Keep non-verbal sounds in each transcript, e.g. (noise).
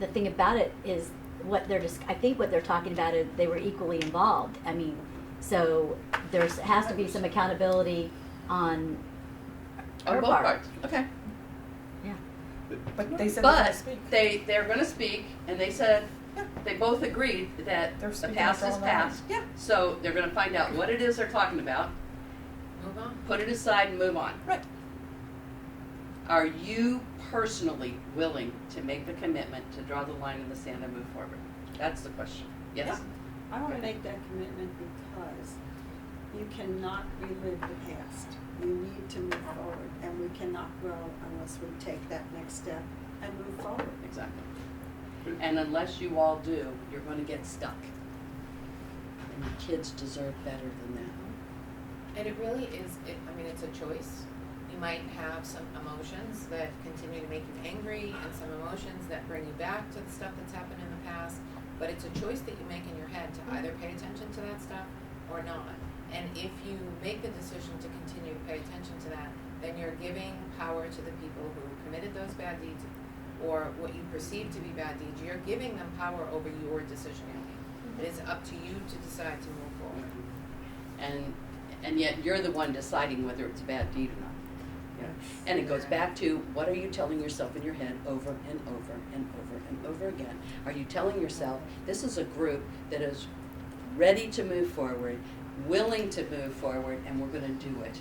the thing about it is what they're just, I think what they're talking about is they were equally involved. I mean, so there's, has to be some accountability on on her both part. parts, okay. Yeah. But they said they're gonna But speak. they, they're gonna speak, and they said, Yeah. they both agreed that They're the speaking past for is all of us. past. Yeah. So they're gonna find out what it is they're talking about, Move on. put it aside and move on. Right. Are you personally willing to make the commitment to draw the line in the sand and move forward? That's the question, yes? I wanna make that commitment because you cannot relive the past. You need to move forward, and we cannot grow unless we take that next step and move forward. Exactly. And unless you all do, you're gonna get stuck. And your kids deserve better than that. And it really is, it, I mean, it's a choice. You might have some emotions that continue to make you angry and some emotions that bring you back to the stuff that's happened in the past. But it's a choice that you make in your head to either pay attention to that stuff or not. And if you make the decision to continue to pay attention to that, then you're giving power to the people who committed those bad deeds or what you perceive to be bad deeds. You're giving them power over your decision making. It is up to you to decide to move forward. And, and yet you're the one deciding whether it's a bad deed or not. Yeah. And it goes back to, what are you telling yourself in your head over and over and over and over again? Are you telling yourself, this is a group that is ready to move forward, willing to move forward, and we're gonna do it?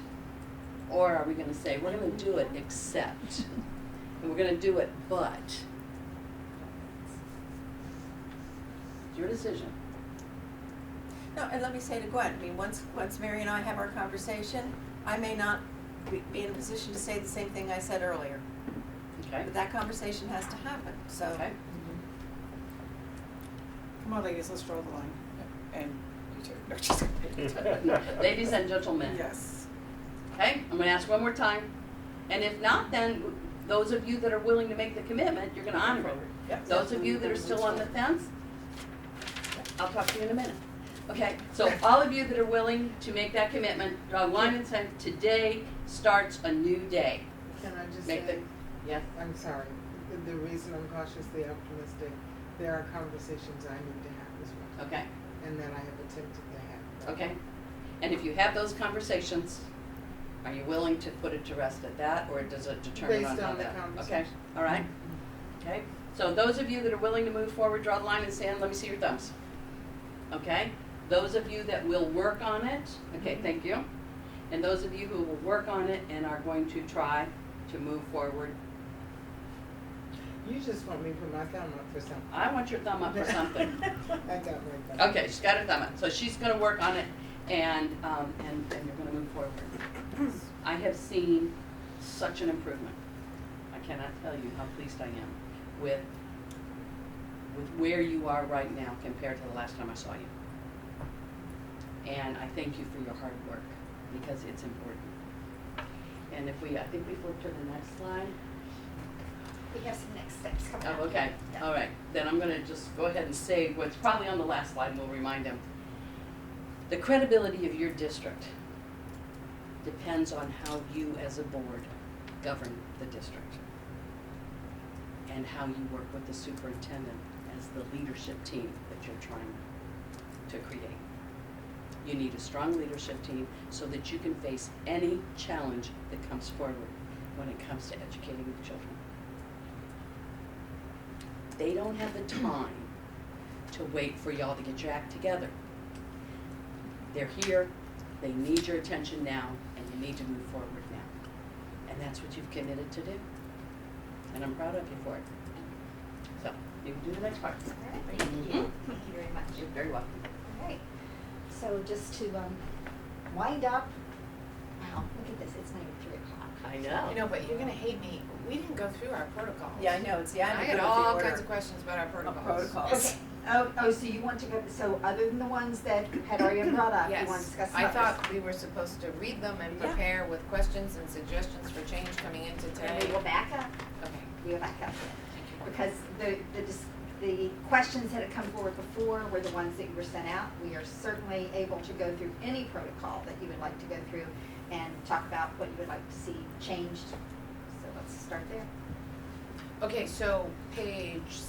Or are we gonna say, we're gonna do it except, and we're gonna do it but? It's your decision. No, and let me say to Gwen, I mean, once, once Mary and I have our conversation, I may not be- be in a position to say the same thing I said earlier. Okay. But that conversation has to happen, so. Okay. Come on, ladies, let's draw the line. And you too. No, just kidding. (laughs) Ladies and gentlemen. Yes. Okay, I'm gonna ask one more time. And if not, then those of you that are willing to make the commitment, you're gonna honor it. Yep. Those of you that are still on the fence, I'll talk to you in a minute. Okay, so all of you that are willing to make that commitment, draw a line and say, today starts a new day. Can I just Make say, the, yes, I'm sorry, the- the reason I'm cautiously optimistic, there are conversations I need to have as well, okay, and that I have attempted to have. okay. And if you have those conversations, are you willing to put it to rest at that, or does it determine on Based how on the that? Okay, conversation. all right. Okay, so those of you that are willing to move forward, draw the line in the sand, let me see your thumbs. Okay, those of you that will work on it, Mm-hmm. okay, thank you. And those of you who will work on it and are going to try to move forward, You just want me to put my thumb up for something. I want your thumb (laughs) up for something. I got my thumb. Okay, she's got her thumb up, so she's gonna work on it and, um, and, and you're gonna move forward. I have seen such an improvement. I cannot tell you how pleased I am with, with where you are right now compared to the last time I saw you. And I thank you for your hard work, because it's important. And if we, I think we flip to the next slide. We have some next steps coming up. Oh, okay, all right, then I'm gonna just go ahead and say what's probably on the last slide, and we'll remind them. The credibility of your district depends on how you as a board govern the district. And how you work with the superintendent as the leadership team that you're trying to create. You need a strong leadership team so that you can face any challenge that comes forward when it comes to educating the children they don't have the time to wait for y'all to get your act together. They're here, they need your attention now, and you need to move forward now. And that's what you've committed to do. And I'm proud of you for it. So, you can do the next part. All right, thank you, thank you very much. You're very welcome. All right, so just to um, wind up, wow, look at this, it's not even three o'clock. I know. I know, but you're gonna hate me. We didn't go through our protocols. Yeah, I know, it's the I idea had of the all order kinds of questions about our of protocols. protocols. Okay, oh, oh, so you want to go, so other than the ones that had already been brought up, you want to discuss Yes, others? I thought we were supposed to read them and Yeah. prepare with questions and suggestions for change coming into today. And we will back up, Okay. we will back up then. Because the, the, dis- the questions that had come forward before were the ones that were sent out. We are certainly able to go through any protocol that you would like to go through and talk about what you would like to see changed. So let's start there. Okay, so page